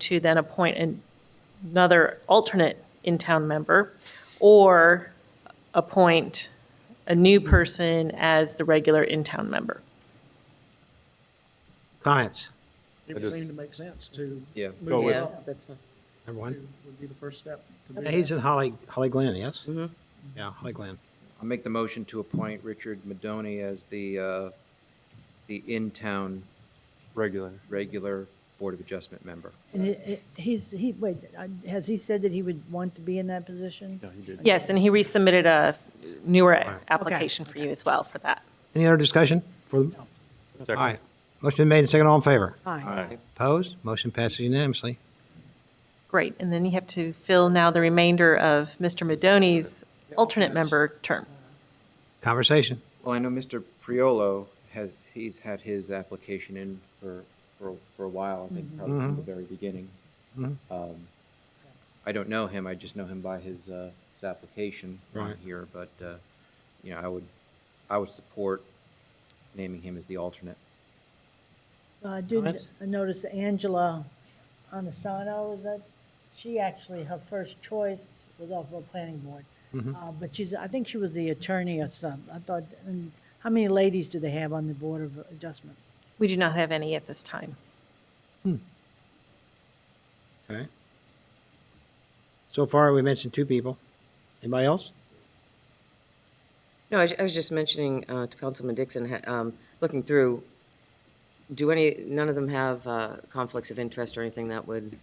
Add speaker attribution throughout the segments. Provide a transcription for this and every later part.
Speaker 1: to then appoint an- another alternate in-town member, or appoint a new person as the regular in-town member.
Speaker 2: Comments?
Speaker 3: It
Speaker 4: I
Speaker 3: would
Speaker 4: just-
Speaker 3: seem to make sense to.
Speaker 4: Yeah.
Speaker 3: move
Speaker 4: Go
Speaker 3: it
Speaker 4: with-
Speaker 5: Yeah,
Speaker 3: up.
Speaker 5: that's fine.
Speaker 2: Number one.
Speaker 3: Would be the first step. to do
Speaker 2: Yeah, He's
Speaker 3: that.
Speaker 2: in Holly, Holly Glen, yes?
Speaker 5: Mhm.
Speaker 2: Yeah, Holly Glen.
Speaker 4: I'll make the motion to appoint Richard Madoni as the, uh, the in-town
Speaker 6: regular.
Speaker 4: regular Board of Adjustment member.
Speaker 7: And it- it- he's, he, wait, uh, has he said that he would want to be in that position?
Speaker 6: No, he did.
Speaker 1: Yes, and he resubmitted a newer
Speaker 2: Right.
Speaker 1: application for you as well for that.
Speaker 2: Any other discussion? For, all
Speaker 6: Second.
Speaker 2: right. Motion been made and seconded. All in favor?
Speaker 7: Aye.
Speaker 2: Opposed? Motion passes unanimously.
Speaker 1: Great, and then you have to fill now the remainder of Mr. Madoni's alternate
Speaker 3: alternates.
Speaker 1: member term.
Speaker 2: Conversation.
Speaker 4: Well, I know Mr. Priolo has, he's had his application in for, for, for a while, I think probably from the
Speaker 2: Mhm.
Speaker 4: very beginning.
Speaker 2: Mhm.
Speaker 4: Um, I don't know him, I just know him by his, uh, his application on
Speaker 2: Right.
Speaker 4: here, but, uh, you know, I would, I would support naming him as the alternate.
Speaker 7: Uh, I did
Speaker 2: Comments?
Speaker 7: notice Angela Anasano, is that, she actually, her first choice was off of planning board. Uh, But she's, I think she was the attorney or something. I thought, and how many ladies do they have on the Board of Adjustment?
Speaker 1: We do not have any at this time.
Speaker 2: Okay. So far, we mentioned two people. Anybody else?
Speaker 5: No, I was- I was just mentioning uh, to Councilman Dixon, ha- um, looking through, do any, none of them have uh, conflicts of interest or anything that would?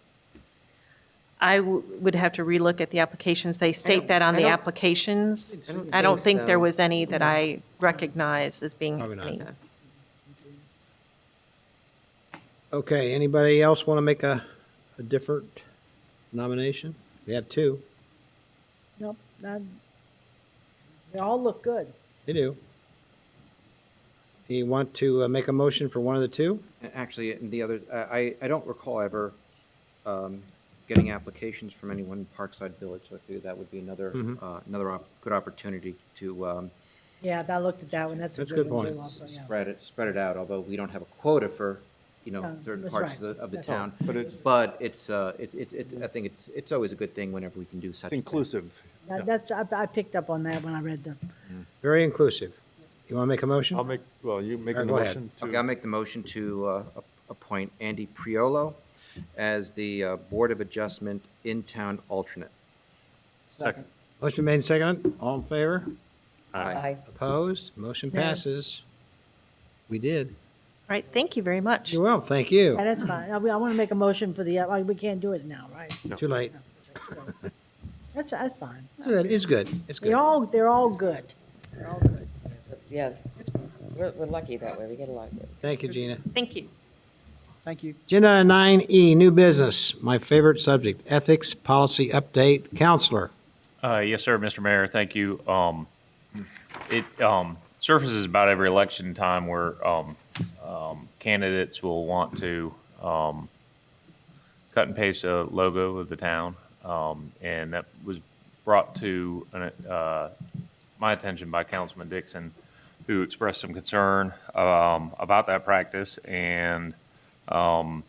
Speaker 1: I w- would have to relook at the applications. They state that on
Speaker 5: I
Speaker 1: the
Speaker 5: don't-
Speaker 1: applications.
Speaker 5: I don't
Speaker 1: I don't
Speaker 5: think
Speaker 1: think there
Speaker 5: so.
Speaker 1: was any that I recognize as being
Speaker 2: Probably not.
Speaker 1: any.
Speaker 5: Okay.
Speaker 2: Okay, anybody else want to make a, a different nomination? We have two.
Speaker 7: Nope, not, they all look good.
Speaker 2: They do. Do you want to uh, make a motion for one of the two?
Speaker 4: And Actually, and the other, uh, I, I- I don't recall ever um, getting applications from anyone in Parkside Village, so I figured that would be another,
Speaker 2: Mhm.
Speaker 6: Mm-hmm.
Speaker 4: uh, another op- good opportunity to um,
Speaker 7: Yeah, I looked at that one, that's a
Speaker 2: That's
Speaker 7: good
Speaker 2: good
Speaker 7: one
Speaker 2: point.
Speaker 7: too also, yeah.
Speaker 4: spread it, spread it out, although we don't have a quota for, you know,
Speaker 7: Um,
Speaker 4: certain
Speaker 7: that's
Speaker 4: parts of the,
Speaker 7: right.
Speaker 4: of the
Speaker 7: That's
Speaker 4: town.
Speaker 6: But it's-
Speaker 4: But it's, uh, it, it, it- I think it's, it's always a good thing whenever we can do such.
Speaker 6: It's
Speaker 4: a thing.
Speaker 6: inclusive.
Speaker 7: That- That's, I I picked up on that when I read the,
Speaker 2: Very inclusive. You want to make a motion?
Speaker 6: I'll make, well, you make
Speaker 2: All
Speaker 6: a
Speaker 2: right, go ahead.
Speaker 6: motion
Speaker 4: Okay, I'll
Speaker 6: to,
Speaker 4: make the motion to uh, ap- appoint Andy Priolo as the uh, Board of Adjustment in-town alternate.
Speaker 6: second.
Speaker 2: Motion been made and seconded. All in favor?
Speaker 4: Aye.
Speaker 2: Opposed? Motion
Speaker 7: Nay.
Speaker 2: passes. We did.
Speaker 1: Right, thank you very much.
Speaker 2: You're well, thank you.
Speaker 7: Yeah, that's fine. I want to make a motion for the, uh, we can't do it now, right?
Speaker 2: Too late.
Speaker 7: That's, that's fine.
Speaker 2: Good, It's good, it's good.
Speaker 7: They're all, they're all good. They're all good.
Speaker 5: Yeah, we're we're lucky that way, we get a lot.
Speaker 2: Thank you, Gina.
Speaker 1: Thank you.
Speaker 3: Thank you.
Speaker 2: Agenda nine E, new business, my favorite subject, ethics policy update. Counselor,
Speaker 8: Uh, Yes, sir, Mr. Mayor, thank you. Um, It um, surfaces about every election time where um, um, candidates will want to um, cut and paste a logo of the town, Um, and that was brought to an, uh, my attention by Councilman Dixon, who expressed some concern um, about that practice, and um,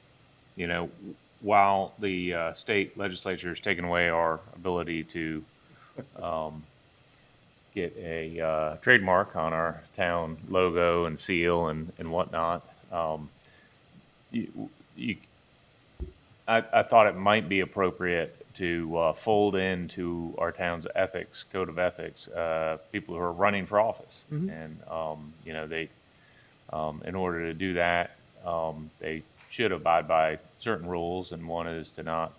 Speaker 8: you know, while the uh, state legislature has taken away our ability to um, get a uh, trademark on our town logo and seal and, and whatnot, um, you, you, I, I thought it might be appropriate to uh, fold into our town's ethics, code of ethics, uh, people who are running for office. And, um, you know, they, um, in order to do that, um, they should abide by certain rules, and one is to not,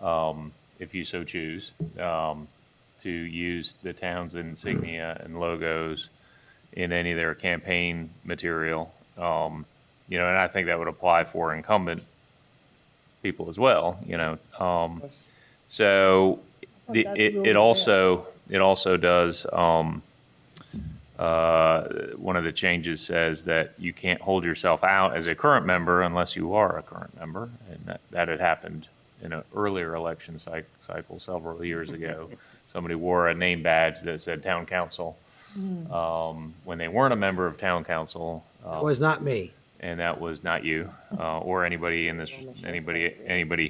Speaker 8: um, if you so choose, um, to use the town's insignia and logos in any of their campaign material. Um, you know, and I think that would apply for incumbent people as well, you know. Um, so the,
Speaker 7: Well, that's
Speaker 8: it,
Speaker 7: really
Speaker 8: it
Speaker 7: fair.
Speaker 8: also, it also does, um, uh, one of the changes says that you can't hold yourself out as a current member unless you are a current member. And that, that had happened in an earlier election cy- cycle several years ago. Somebody wore a name badge that said town council, um, when they weren't a member of town council.
Speaker 2: that
Speaker 8: um,
Speaker 2: was not me.
Speaker 8: and that was not you uh, or anybody in this anybody anybody